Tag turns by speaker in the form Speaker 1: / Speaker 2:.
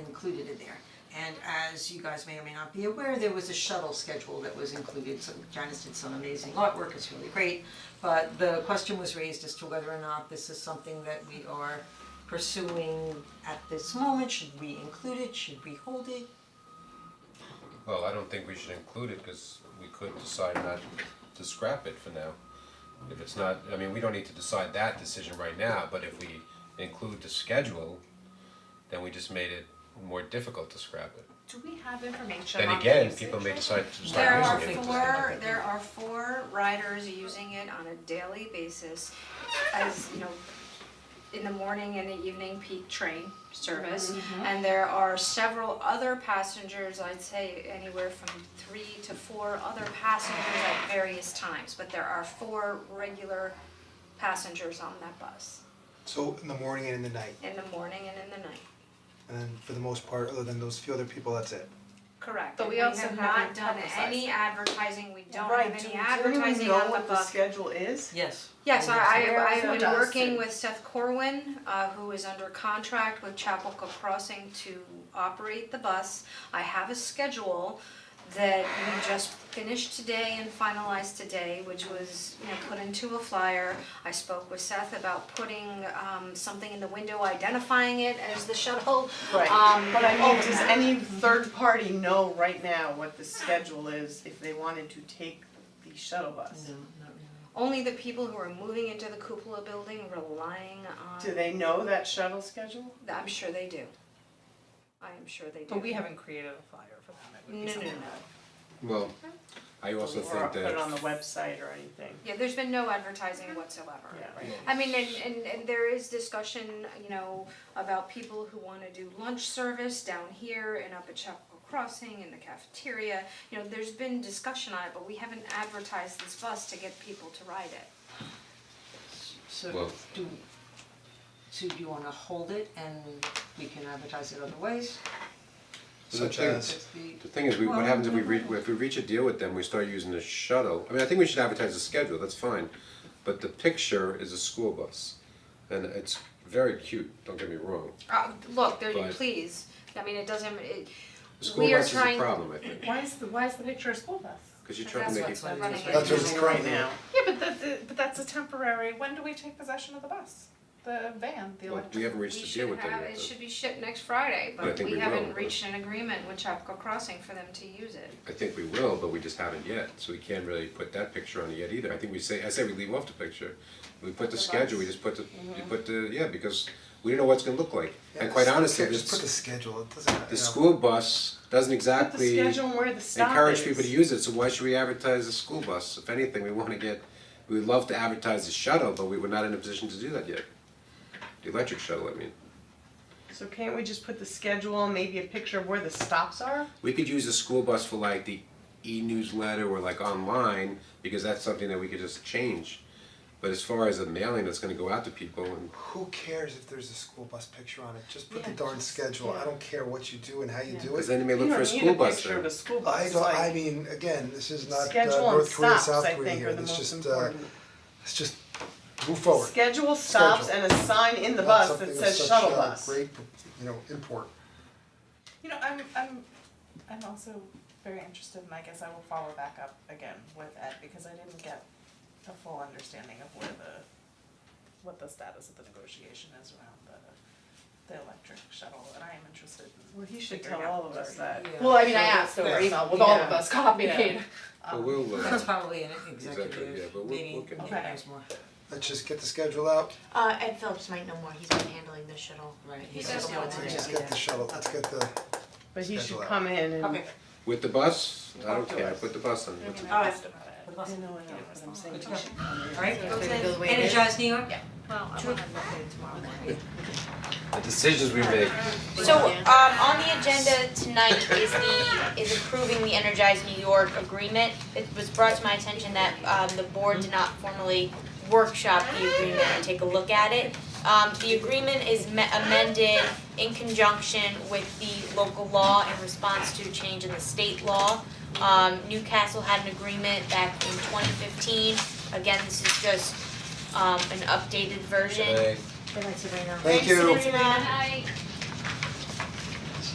Speaker 1: included in there. And as you guys may or may not be aware, there was a shuttle schedule that was included, so Janice did some amazing artwork, it's really great. But the question was raised as to whether or not this is something that we are pursuing at this moment, should we include it, should we hold it?
Speaker 2: Well, I don't think we should include it, cause we could decide not to scrap it for now. If it's not, I mean, we don't need to decide that decision right now, but if we include the schedule, then we just made it more difficult to scrap it.
Speaker 3: Do we have information
Speaker 2: Then
Speaker 3: on
Speaker 2: again,
Speaker 3: the
Speaker 2: people may
Speaker 3: usage?
Speaker 2: decide to
Speaker 4: There
Speaker 2: start
Speaker 4: are
Speaker 2: using it.
Speaker 4: four, there are four riders using it on a daily basis as, you know, in the morning and the evening peak train service. And there are several other passengers, I'd say anywhere from three to four other passengers at various times. But there are four regular passengers on that bus,
Speaker 5: So in the morning and in the night,
Speaker 4: in the morning and in the night.
Speaker 5: and then for the most part, other than those few other people, that's it.
Speaker 4: Correct,
Speaker 3: But
Speaker 4: and
Speaker 3: we
Speaker 4: we have
Speaker 3: also
Speaker 4: not
Speaker 3: haven't
Speaker 4: done
Speaker 3: publicized
Speaker 4: any
Speaker 3: it.
Speaker 4: advertising, we don't
Speaker 6: Right,
Speaker 4: have
Speaker 6: do,
Speaker 4: any
Speaker 6: do
Speaker 4: advertising
Speaker 6: anyone
Speaker 4: on
Speaker 6: know
Speaker 4: the
Speaker 6: what the
Speaker 4: bus.
Speaker 6: schedule is?
Speaker 1: Yes.
Speaker 4: Yes, I
Speaker 6: Where
Speaker 4: I
Speaker 6: is
Speaker 4: I
Speaker 6: it
Speaker 4: would
Speaker 6: dusted?
Speaker 4: working with Seth Corwin, uh who is under contract with Chapelco Crossing to operate the bus. I have a schedule that we just finished today and finalized today, which was, you know, put into a flyer. I spoke with Seth about putting um something in the window identifying it as the shuttle. Um,
Speaker 6: Right, but I mean,
Speaker 3: oh,
Speaker 6: does
Speaker 4: overnight.
Speaker 6: any third party know right now what the schedule is if they wanted to take the shuttle bus?
Speaker 4: Only the people who are moving into the cupola building relying on,
Speaker 6: Do they know that shuttle schedule?
Speaker 4: I'm sure they do. I am sure they do.
Speaker 3: But we haven't created a flyer for that, it would be
Speaker 4: No, no,
Speaker 3: something
Speaker 4: no.
Speaker 3: that-
Speaker 2: Well, I also
Speaker 6: Or
Speaker 2: think
Speaker 6: put it on the
Speaker 2: that,
Speaker 6: website or anything,
Speaker 4: Yeah, there's been no advertising whatsoever.
Speaker 6: yeah, right.
Speaker 4: I mean, and, and, and there is discussion, you know, about people who wanna do lunch service down here and up at Chapel Crossing in the cafeteria. You know, there's been discussion on it, but we haven't advertised this bus to get people to ride it.
Speaker 1: So
Speaker 2: Well-
Speaker 1: do, so do you wanna hold it and we can advertise it other ways?
Speaker 5: Such
Speaker 2: thing-
Speaker 5: as,
Speaker 1: It's the-
Speaker 2: the thing is, we, what
Speaker 1: Well,
Speaker 2: happens if we
Speaker 1: no,
Speaker 2: reach,
Speaker 1: no.
Speaker 2: if we reach a deal with them, we start using the shuttle, I mean, I think we should advertise the schedule, that's fine. But the picture is a school bus, and it's very cute, don't get me wrong,
Speaker 4: Uh, look, there,
Speaker 2: But-
Speaker 4: please, I mean, it doesn't, it,
Speaker 2: the school
Speaker 4: we are
Speaker 2: bus is a
Speaker 4: trying.
Speaker 2: problem, I think.
Speaker 3: Why is the, why is the picture a school bus?
Speaker 2: Cause you're trying to make it,
Speaker 4: That's what's running.
Speaker 5: That's what it's currently-
Speaker 3: Yeah, but that, that- but that's a temporary, when do we take possession of the bus? The van, the
Speaker 2: well,
Speaker 3: electric.
Speaker 2: we haven't reached a deal with them yet.
Speaker 4: We should have, it
Speaker 2: though.
Speaker 4: should be shipped next Friday,
Speaker 2: I
Speaker 4: but
Speaker 2: think
Speaker 4: we
Speaker 2: we will,
Speaker 4: haven't
Speaker 2: but-
Speaker 4: reached an agreement with Chapel Crossing for them to use it.
Speaker 2: I think we will, but we just haven't yet, so we can't really put that picture on it yet either. I think we say, I say we leave off the picture. We put the schedule, we just put the, we put the, yeah, because we don't know what it's gonna look like.
Speaker 5: yeah,
Speaker 2: And quite
Speaker 5: just-
Speaker 2: honestly,
Speaker 5: just put the
Speaker 2: this,
Speaker 5: schedule, it doesn't,
Speaker 2: the
Speaker 5: you know.
Speaker 2: school bus doesn't
Speaker 6: Put the
Speaker 2: exactly
Speaker 6: schedule and where the stop is.
Speaker 2: encourage people to use it, so why should we advertise the school bus? If anything, we wanna get, we would love to advertise the shuttle, but we were not in a position to do that yet. The electric shuttle, I mean.
Speaker 6: So can't we just put the schedule and maybe a picture of where the stops are?
Speaker 2: We could use the school bus for like the e-newsletter or like online, because that's something that we could just change. But as far as the mailing that's gonna go out to people and,
Speaker 5: Who cares if there's a school bus picture on it, just put the
Speaker 6: Yeah,
Speaker 5: darn
Speaker 6: just-
Speaker 5: schedule,
Speaker 6: yeah.
Speaker 5: I don't care what you do and how you do
Speaker 2: cause
Speaker 5: it.
Speaker 2: then they may look for a school bus
Speaker 6: You don't need a picture of
Speaker 2: there.
Speaker 6: a school bus,
Speaker 5: I
Speaker 6: it's
Speaker 5: don't, I
Speaker 6: like
Speaker 5: mean, again, this is not uh,
Speaker 6: schedule and
Speaker 5: North Korea,
Speaker 6: stops,
Speaker 5: South
Speaker 6: I
Speaker 5: Korea
Speaker 6: think
Speaker 5: here,
Speaker 6: are the
Speaker 5: let's
Speaker 6: most
Speaker 5: just, uh,
Speaker 6: important.
Speaker 5: let's just move forward.
Speaker 6: Schedule stops
Speaker 5: Schedule.
Speaker 6: and a sign in the
Speaker 5: Not
Speaker 6: bus
Speaker 5: something
Speaker 6: that
Speaker 5: of
Speaker 6: says
Speaker 5: such,
Speaker 6: shuttle
Speaker 5: uh,
Speaker 6: bus.
Speaker 5: Great, you know, import.
Speaker 3: You know, I'm, I'm, I'm also very interested, and I guess I will follow back up again with Ed, because I didn't get a full understanding of where the, what the status of the negotiation is around the, the electric shuttle, and I am interested in.
Speaker 6: Well, he should
Speaker 3: figuring
Speaker 6: tell
Speaker 3: out
Speaker 6: all of us
Speaker 3: where-
Speaker 6: that.
Speaker 1: Yeah.
Speaker 3: Well, I mean,
Speaker 6: So
Speaker 3: I asked
Speaker 6: that's
Speaker 3: over
Speaker 6: fair.
Speaker 3: email with all of
Speaker 6: Yeah.
Speaker 3: us copied.
Speaker 6: Yeah.
Speaker 2: But
Speaker 3: Um,
Speaker 2: we'll, uh,
Speaker 1: That's probably an
Speaker 2: Executive, yeah,
Speaker 1: executive,
Speaker 2: but we'll- we'll
Speaker 1: meeting,
Speaker 2: get-
Speaker 1: yeah,
Speaker 3: Okay.
Speaker 1: there's more,
Speaker 5: Let's just get the schedule out,
Speaker 7: Uh, Ed Phillips might know more, he's been handling the shuttle.
Speaker 1: right,
Speaker 7: He
Speaker 1: he's
Speaker 7: does
Speaker 1: just
Speaker 7: know
Speaker 1: wants
Speaker 7: what
Speaker 5: let's
Speaker 1: to
Speaker 7: to
Speaker 5: just
Speaker 1: do.
Speaker 5: get the shuttle, let's get the,
Speaker 6: But he should
Speaker 5: Schedule out.
Speaker 6: come in and.
Speaker 1: Okay.
Speaker 2: with the bus, I
Speaker 3: Talk
Speaker 2: don't
Speaker 3: to
Speaker 2: care,
Speaker 3: us.
Speaker 2: put the bus on, what's-
Speaker 3: I asked about it.
Speaker 6: I know, I know, but I'm saying.
Speaker 1: Good to go. All right,
Speaker 7: Go to
Speaker 1: energize New York?
Speaker 4: Well, I will have it updated tomorrow morning.
Speaker 2: the decisions we make.
Speaker 8: So, um, on the agenda tonight is the, is approving the Energize New York agreement. It was brought to my attention that, um, the board did not formally workshop the agreement and take a look at it. Um, the agreement is me- amended in conjunction with the local law in response to a change in the state law. Um, Newcastle had an agreement back in twenty fifteen, again, this is just, um, an updated version.
Speaker 2: Hey,
Speaker 5: thank you.
Speaker 8: Sabrina.